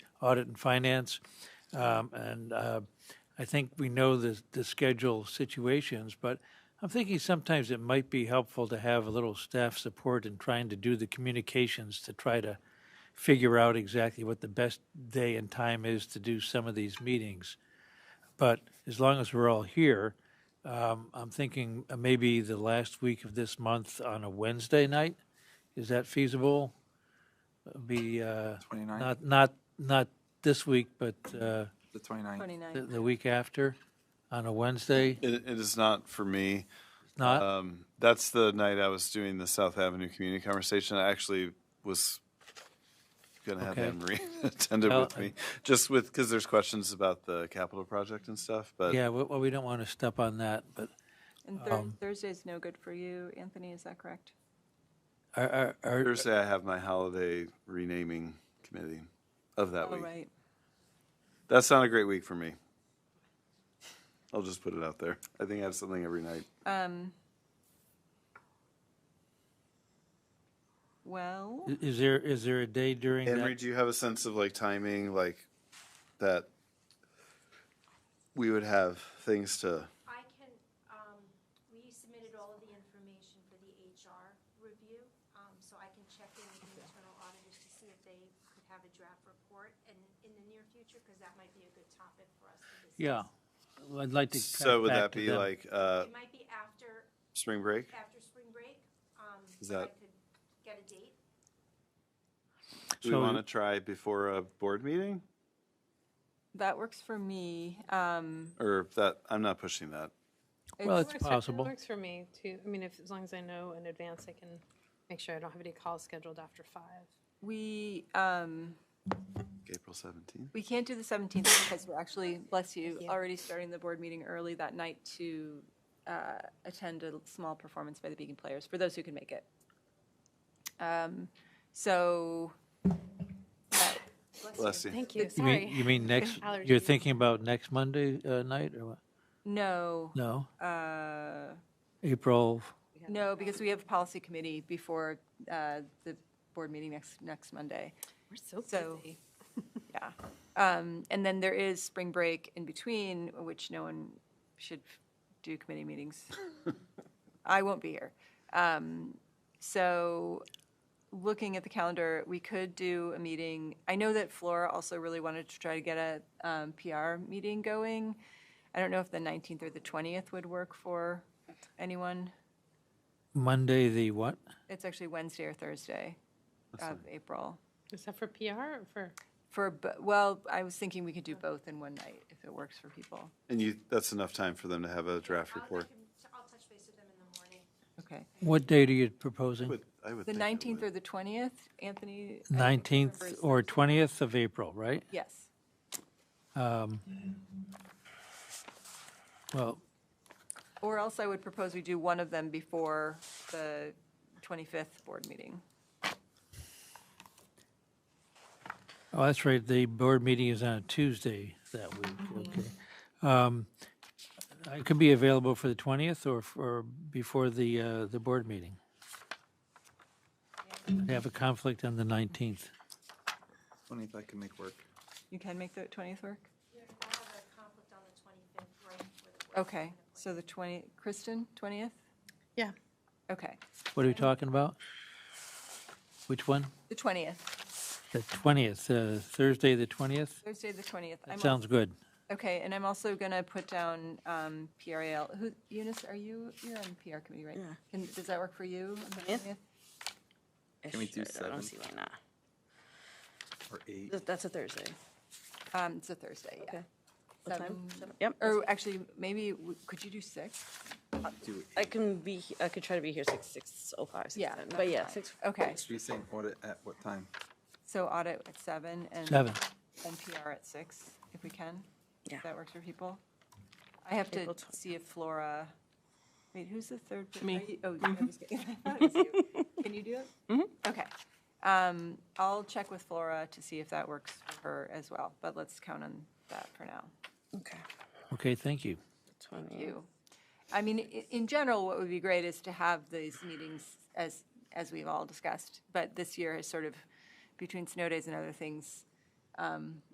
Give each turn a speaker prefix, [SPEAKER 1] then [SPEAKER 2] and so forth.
[SPEAKER 1] Audit and Finance. Um, And uh, I think we know the, the schedule situations, but I'm thinking sometimes it might be helpful to have a little staff support in trying to do the communications to try to figure out exactly what the best day and time is to do some of these meetings. But as long as we're all here, um, I'm thinking uh, maybe the last week of this month on a Wednesday night. Is that feasible? Uh, Be, uh,
[SPEAKER 2] 29th?
[SPEAKER 1] not, not, not this week, but, uh,
[SPEAKER 2] The 29th.
[SPEAKER 3] 29.
[SPEAKER 1] the, the week after, on a Wednesday,
[SPEAKER 4] It, it is not for me.
[SPEAKER 1] not,
[SPEAKER 4] Um, that's the night I was doing the South Avenue Community Conversation. I actually was going to have
[SPEAKER 1] Okay. Oh,
[SPEAKER 4] Anne Marie attend it
[SPEAKER 1] Well,
[SPEAKER 4] with me, just with because there's questions about the capital project and stuff. But
[SPEAKER 1] yeah, well, well, we don't want to step on that, but
[SPEAKER 3] And Thur- Thursday's no good for you, Anthony, is that correct?
[SPEAKER 1] are, are- are,
[SPEAKER 4] Thursday I have my holiday renaming committee of that
[SPEAKER 3] All
[SPEAKER 4] week.
[SPEAKER 3] right.
[SPEAKER 4] That's not a great week for me. I'll just put it out there. I think I have something every night.
[SPEAKER 3] Um, Well,
[SPEAKER 1] i- is there, is there a day during
[SPEAKER 4] Henry,
[SPEAKER 1] that?
[SPEAKER 4] do you have a sense of like timing, like that we would have things to?
[SPEAKER 5] I can, um, we submitted all of the information for the HR review, um, so I can check in with the internal auditors to see if they could have a draft report in, in the near future, because that might be a good topic for us to discuss.
[SPEAKER 1] Yeah, Well, I'd like to. cut
[SPEAKER 4] So would
[SPEAKER 1] back to
[SPEAKER 4] that be
[SPEAKER 1] them.
[SPEAKER 4] like uh,
[SPEAKER 5] It might be after,
[SPEAKER 4] spring break?
[SPEAKER 5] after spring break, um,
[SPEAKER 4] Is
[SPEAKER 5] so I
[SPEAKER 4] that-
[SPEAKER 5] could get a date.
[SPEAKER 4] Do we
[SPEAKER 1] So-
[SPEAKER 4] want to try before a board meeting,
[SPEAKER 3] that works for me. Um,
[SPEAKER 4] or that I'm not pushing that?
[SPEAKER 1] Well, it's
[SPEAKER 3] it's-
[SPEAKER 6] Works for- It
[SPEAKER 1] possible.
[SPEAKER 6] works for me too. I mean, if, as long as I know in advance, I can make sure I don't have any calls scheduled after five.
[SPEAKER 3] We, um,
[SPEAKER 4] April 17th.
[SPEAKER 3] we can't do the 17th because we're actually, bless you, already starting the board meeting early that night to uh, attend a small performance by the Beacon Players, for those who can make it. Um, So, uh,
[SPEAKER 4] Bless you.
[SPEAKER 6] Thank you,
[SPEAKER 1] You mean,
[SPEAKER 6] sorry.
[SPEAKER 1] you mean next, you're
[SPEAKER 6] Allergies.
[SPEAKER 1] thinking about next Monday uh, night or what?
[SPEAKER 3] no,
[SPEAKER 1] No,
[SPEAKER 3] uh,
[SPEAKER 1] April,
[SPEAKER 3] No, because we have policy committee before uh, the board meeting next, next Monday,
[SPEAKER 6] We're so
[SPEAKER 3] so-
[SPEAKER 6] busy.
[SPEAKER 3] yeah. Um, And then there is spring break in between, which no one should do committee meetings. I won't be here. Um, So, looking at the calendar, we could do a meeting. I know that Flora also really wanted to try to get a um, PR meeting going. I don't know if the 19th or the 20th would work for anyone.
[SPEAKER 1] Monday, the what?
[SPEAKER 3] It's actually Wednesday or Thursday of April.
[SPEAKER 6] Is that for PR or for,
[SPEAKER 3] For, bo- well, I was thinking we could do both in one night if it works for people.
[SPEAKER 4] And you, that's enough time for them to have a draft
[SPEAKER 5] I'll, I
[SPEAKER 4] report.
[SPEAKER 5] can, I'll touch base with them in the morning.
[SPEAKER 3] Okay.
[SPEAKER 1] What date are you proposing?
[SPEAKER 4] Would- I would
[SPEAKER 3] The
[SPEAKER 4] think it
[SPEAKER 3] 19th
[SPEAKER 4] would.
[SPEAKER 3] or the 20th, Anthony? I think
[SPEAKER 1] Nineteenth
[SPEAKER 3] remembers-
[SPEAKER 1] or twentieth of April, right?
[SPEAKER 3] Yes.
[SPEAKER 1] Well,
[SPEAKER 3] Or else I would propose we do one of them before the 25th board meeting.
[SPEAKER 1] oh, that's right, the board meeting is on a Tuesday that week, okay. Um, I could be available for the twentieth or for, before the, uh, the board meeting. I have a conflict on the nineteenth.
[SPEAKER 2] 20th I can make work.
[SPEAKER 3] You can make the 20th work?
[SPEAKER 5] I have a conflict on the twenty-fifth, right before the board.
[SPEAKER 3] Okay, so the 20, Kristen, 20th?
[SPEAKER 6] yeah,
[SPEAKER 3] Okay,
[SPEAKER 1] What are we talking about? Which one?
[SPEAKER 3] the 20th,
[SPEAKER 1] The twentieth, uh, Thursday, the twentieth?
[SPEAKER 3] Thursday, the 20th. I'm also-
[SPEAKER 1] Sounds good.
[SPEAKER 3] Okay, and I'm also going to put down um, PRAL. Who, Eunice, are you, you're on PR committee, right?
[SPEAKER 7] Yeah.
[SPEAKER 3] Can, does that work for you? on the
[SPEAKER 7] Yeah.
[SPEAKER 3] 20th?
[SPEAKER 7] Ish,
[SPEAKER 2] we do
[SPEAKER 7] I- I
[SPEAKER 2] seven?
[SPEAKER 7] don't see why not.
[SPEAKER 2] Or 8.
[SPEAKER 7] Th- That's a Thursday.
[SPEAKER 3] Um, It's a Thursday, yeah.
[SPEAKER 7] Okay. What time?
[SPEAKER 3] Seven.
[SPEAKER 7] Seven? Yep.
[SPEAKER 3] Or actually, maybe, w- could you do six?
[SPEAKER 2] Do
[SPEAKER 7] I can be, he- I could try to be here six, six oh five, six
[SPEAKER 3] Yeah,
[SPEAKER 7] ten,
[SPEAKER 3] that's
[SPEAKER 7] but yeah,
[SPEAKER 3] fine.
[SPEAKER 7] six.
[SPEAKER 3] Okay,
[SPEAKER 2] Should we say audit at what time?
[SPEAKER 3] so audit at seven and.
[SPEAKER 1] Seven.
[SPEAKER 3] And PR at six, if we can.
[SPEAKER 7] Yeah.
[SPEAKER 3] If that works for people. I have to
[SPEAKER 7] April twen-
[SPEAKER 3] see if Flora, wait, who's the third? Me. Oh, I was kidding. I thought it was you. Can you do it? Mm-hmm. Okay. Um, I'll check with Flora to see if that works for her as well, but let's count on that for now.
[SPEAKER 7] Okay.
[SPEAKER 1] Okay, thank you.
[SPEAKER 7] Twenty.
[SPEAKER 3] you. I mean, i- in general, what would be great is to have these meetings as, as we've all discussed, but this year is sort of, between snow days and other things, um,